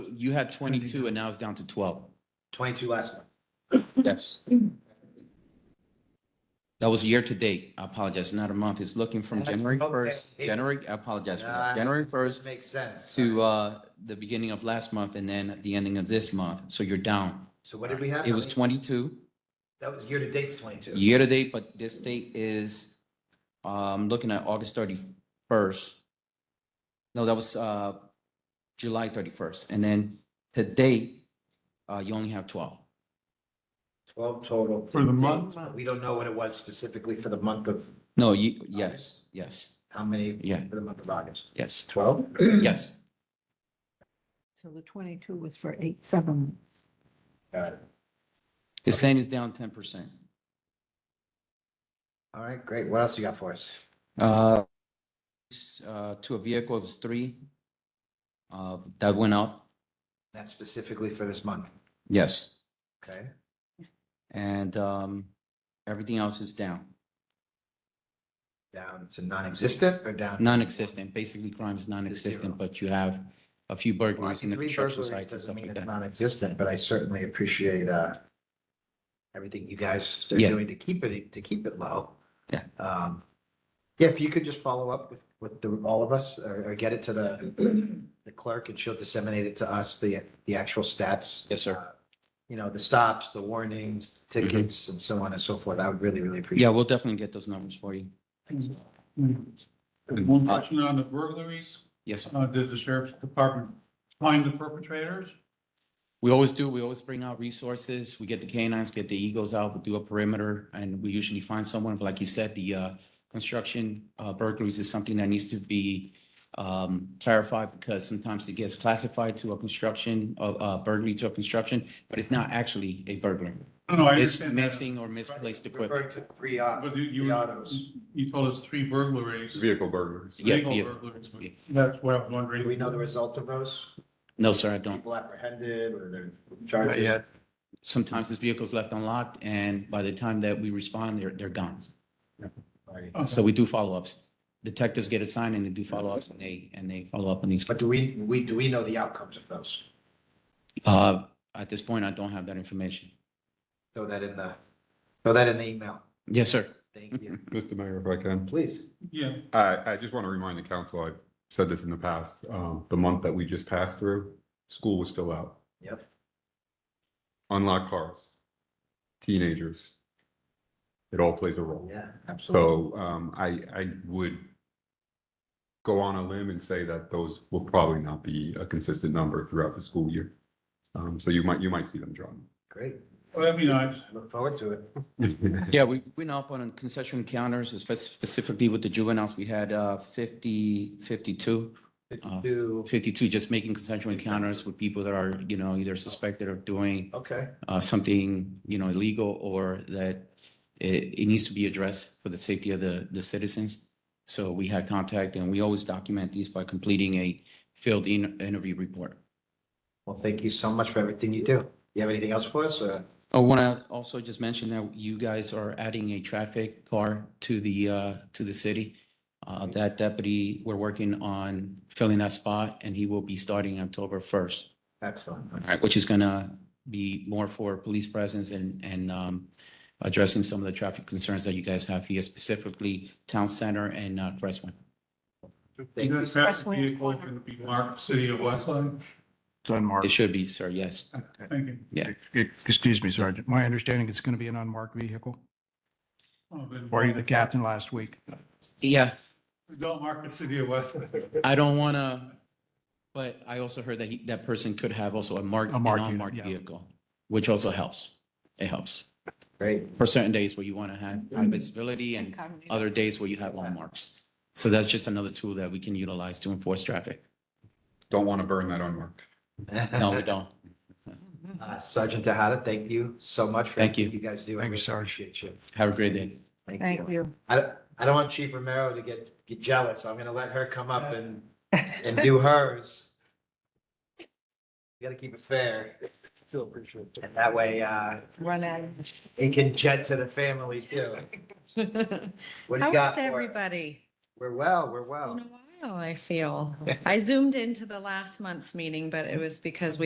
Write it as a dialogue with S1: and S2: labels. S1: you had twenty-two and now it's down to twelve.
S2: Twenty-two last month.
S1: Yes. That was year to date. I apologize, not a month. It's looking from
S2: That's
S1: January
S2: okay.
S1: first, January, I apologize for that,
S2: Nah.
S1: January first
S2: Makes sense.
S1: to, uh, the beginning of last month and then at the ending of this month. So you're down.
S2: So what did we have?
S1: It was twenty-two.
S2: That was year to date's twenty-two.
S1: year to date, but this date is, um, looking at August thirty-first. No, that was, uh, July thirty-first, and then today, uh, you only have twelve.
S2: Twelve total.
S3: For the month?
S2: But We don't know what it was specifically for the month of,
S1: No, you, yes, yes,
S2: how many?
S1: Yeah.
S2: For the month of August.
S1: yes,
S2: Twelve?
S1: yes.
S4: So the 22 was for eight, seven.
S2: Got it.
S1: It's saying it's down ten percent.
S2: All right, great. What else you got for us?
S1: Uh, s- uh, to a vehicle, it was three. Uh, that went up,
S2: That's specifically for this month,
S1: yes,
S2: okay?
S1: and, um, everything else is down,
S2: Down to non-existent or down?
S1: non-existent, basically crime is non-existent,
S2: zero.
S1: but you have a few
S2: Well, I
S1: burglaries in
S2: think
S1: the
S2: three
S1: construction
S2: burglaries
S1: sites and
S2: doesn't
S1: stuff
S2: mean
S1: like
S2: it's
S1: that.
S2: non-existent, but I certainly appreciate, uh, everything you guys are
S1: Yeah.
S2: doing to keep it, to keep it low.
S1: Yeah.
S2: Um, yeah, if you could just follow up with, with the, all of us, or, or get it to the, the clerk, and she'll disseminate it to us, the, the actual stats.
S1: Yes, sir. Mm-hmm.
S2: uh, You know, the stops, the warnings, tickets, and so on and so forth. I would really, really
S1: Yeah,
S2: appreciate.
S1: we'll definitely get those numbers for you.
S3: One question on the burglaries.
S1: Yes, sir.
S3: Uh, Did the sheriff's department find the perpetrators?
S1: We always do, we always bring out resources. We get the canines, get the eagles out, we do a perimeter, and we usually find someone. But like you said, the uh, construction uh, burglaries is something that needs to be um, clarified because sometimes it gets classified to a construction, a- a burglary to a construction, but it's not actually a burglary.
S3: No, no, I
S1: It's
S3: understand that.
S1: missing or misplaced equipment.
S2: Referring to three, uh,
S3: But you,
S2: The
S3: you,
S2: autos.
S3: you told us three burglaries.
S5: Vehicle burglaries.
S1: Yeah,
S3: legal
S1: yeah.
S3: burglaries, but
S1: Yeah.
S3: That's what I was
S2: do
S3: wondering.
S2: we know the result of those?
S1: No, sir, I don't.
S2: People apprehended or they're charged? Yeah.
S1: Sometimes this vehicle's left unlocked, and by the time that we respond, they're, they're gone. So
S3: Okay.
S1: we do follow-ups. Detectives get assigned and they do follow-ups and they, and they follow up on these.
S2: But do we, we, do we know the outcomes of those?
S1: Uh, at this point, I don't have that information.
S2: Throw that in the, throw that in the email.
S1: Yes, sir.
S2: Thank you.
S5: Mr. Mayor, if I can.
S2: Please.
S3: Yeah,
S5: I, I just want to remind the council, I've said this in the past, um, the month that we just passed through, school was still out.
S2: Yep.
S5: Unlocked cars, teenagers. It all plays a role.
S2: Yeah, absolutely.
S5: So, um, I, I would go on a limb and say that those will probably not be a consistent number throughout the school year. Um, so you might, you might see them
S2: Great.
S3: well, that'd be nice.
S2: Look forward to it.
S5: drop.
S1: Yeah, we went up on concession encounters, spe- specifically with the juveniles. We had, uh, 50, 52,
S2: Fifty-two,
S1: 52 just making concession encounters with people that are, you know, either suspected of doing,
S2: okay,
S1: uh, something, you know, illegal or that it, it needs to be addressed for the safety of the, the citizens. So we had contact and we always document these by completing a filled in interview report.
S2: well, thank you so much for everything you do. You have anything else for us, or?
S1: I want to also just mention that you guys are adding a traffic car to the, uh, to the city. Uh, that deputy, we're working on filling that spot and he will be starting October first.
S2: Excellent.
S1: Which is gonna be more for police presence and, and, um, addressing some of the traffic concerns that you guys have here, specifically Town Center and, uh, Crestwood.
S2: Thank you.
S3: That traffic vehicle can be marked City of Westlake.
S6: It's unmarked.
S1: It should be, sir, yes.
S3: Thank you.
S6: Excuse me, Sergeant. My understanding, it's going to be an unmarked vehicle.
S3: Oh, good.
S6: Were you the captain last week?
S1: Yeah,
S3: Don't mark it City of Westlake.
S1: I don't wanna, but I also heard that he, that person could have also a marked,
S6: A
S1: an
S6: marked unit,
S1: unmarked
S6: yeah.
S1: vehicle, which also helps. It helps
S2: Great.
S1: for certain days where you wanna have high visibility and other days where you have all marks. So that's just another tool that we can utilize to enforce traffic.
S5: Don't want to burn that unmarked.
S1: No, we don't.
S2: Uh, Sergeant Tahada, thank you so much. for
S1: Thank you.
S2: everything You guys do. I
S6: Thank you,
S2: really
S6: Sarge.
S2: Appreciate you.
S1: Have a great day.
S4: Thank you.
S2: I, don't- I don't want Chief Romero to get, get jealous. I'm gonna let her come up and, and do hers. You gotta keep it fair. Still appreciate it. And that way, uh,
S4: Run out.
S2: it can jet to the family too. What do you
S7: How
S2: got
S7: is
S2: for us?
S7: everybody?
S2: We're well, we're well.
S7: It's Been a while, I feel. I zoomed into the last month's meeting, but it was because we.